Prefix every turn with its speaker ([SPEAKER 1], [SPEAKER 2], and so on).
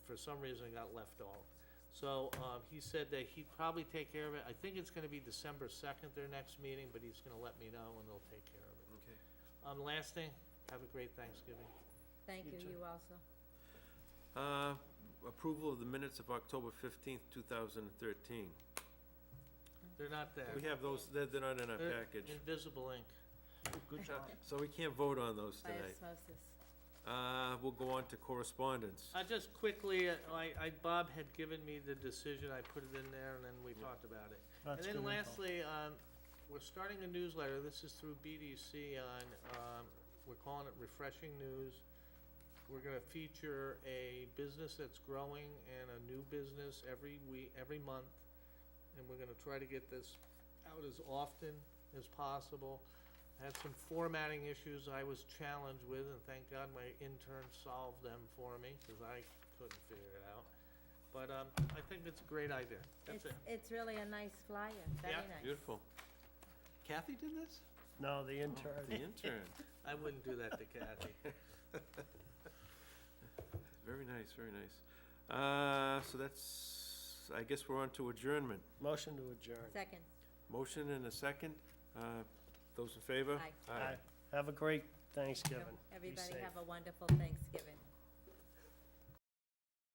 [SPEAKER 1] for some reason got left off. So, um, he said that he'd probably take care of it, I think it's gonna be December second, their next meeting, but he's gonna let me know and they'll take care of it.
[SPEAKER 2] Okay.
[SPEAKER 1] Um, last thing, have a great Thanksgiving.
[SPEAKER 3] Thank
[SPEAKER 2] You
[SPEAKER 3] you,
[SPEAKER 2] too.
[SPEAKER 3] you also.
[SPEAKER 2] Uh, approval of the minutes of October fifteenth, two thousand and thirteen.
[SPEAKER 1] They're not there.
[SPEAKER 2] We have those, they're, they're not in our
[SPEAKER 1] They're
[SPEAKER 2] package.
[SPEAKER 1] Invisible ink.
[SPEAKER 2] Good job. So we can't vote on those
[SPEAKER 3] By
[SPEAKER 2] tonight.
[SPEAKER 3] osmosis.
[SPEAKER 2] Uh, we'll go on to correspondence.
[SPEAKER 1] I just quickly, uh, I, I, Bob had given me the decision, I put it in there, and then we
[SPEAKER 2] Yeah.
[SPEAKER 1] talked about it.
[SPEAKER 4] That's
[SPEAKER 1] And
[SPEAKER 4] good
[SPEAKER 1] then
[SPEAKER 4] info.
[SPEAKER 1] lastly, um, we're starting a newsletter, this is through BDC on, um, we're calling it Refreshing News. We're gonna feature a business that's growing and a new business every week, every month. And we're gonna try to get this out as often as possible. I Had some formatting issues I was challenged with, and thank God my intern solved them for me, cause I couldn't figure it out. But, um, I think it's a great idea, that's
[SPEAKER 3] It's,
[SPEAKER 1] it.
[SPEAKER 3] it's really a nice flyer, very
[SPEAKER 1] Yeah.
[SPEAKER 3] nice.
[SPEAKER 2] Beautiful. Kathy did this?
[SPEAKER 4] No, the
[SPEAKER 2] Oh, The
[SPEAKER 4] intern.
[SPEAKER 2] intern.
[SPEAKER 1] I wouldn't do that to Kathy.
[SPEAKER 2] Very nice, very nice. Uh, so that's, I guess we're on to adjournment.
[SPEAKER 4] Motion to adjourn.
[SPEAKER 3] Second,
[SPEAKER 2] Motion and a second. Uh, those in favor?
[SPEAKER 3] Aye.
[SPEAKER 4] Aye. Have a great Thanksgiving. Be
[SPEAKER 3] everybody
[SPEAKER 4] safe.
[SPEAKER 3] have a wonderful Thanksgiving.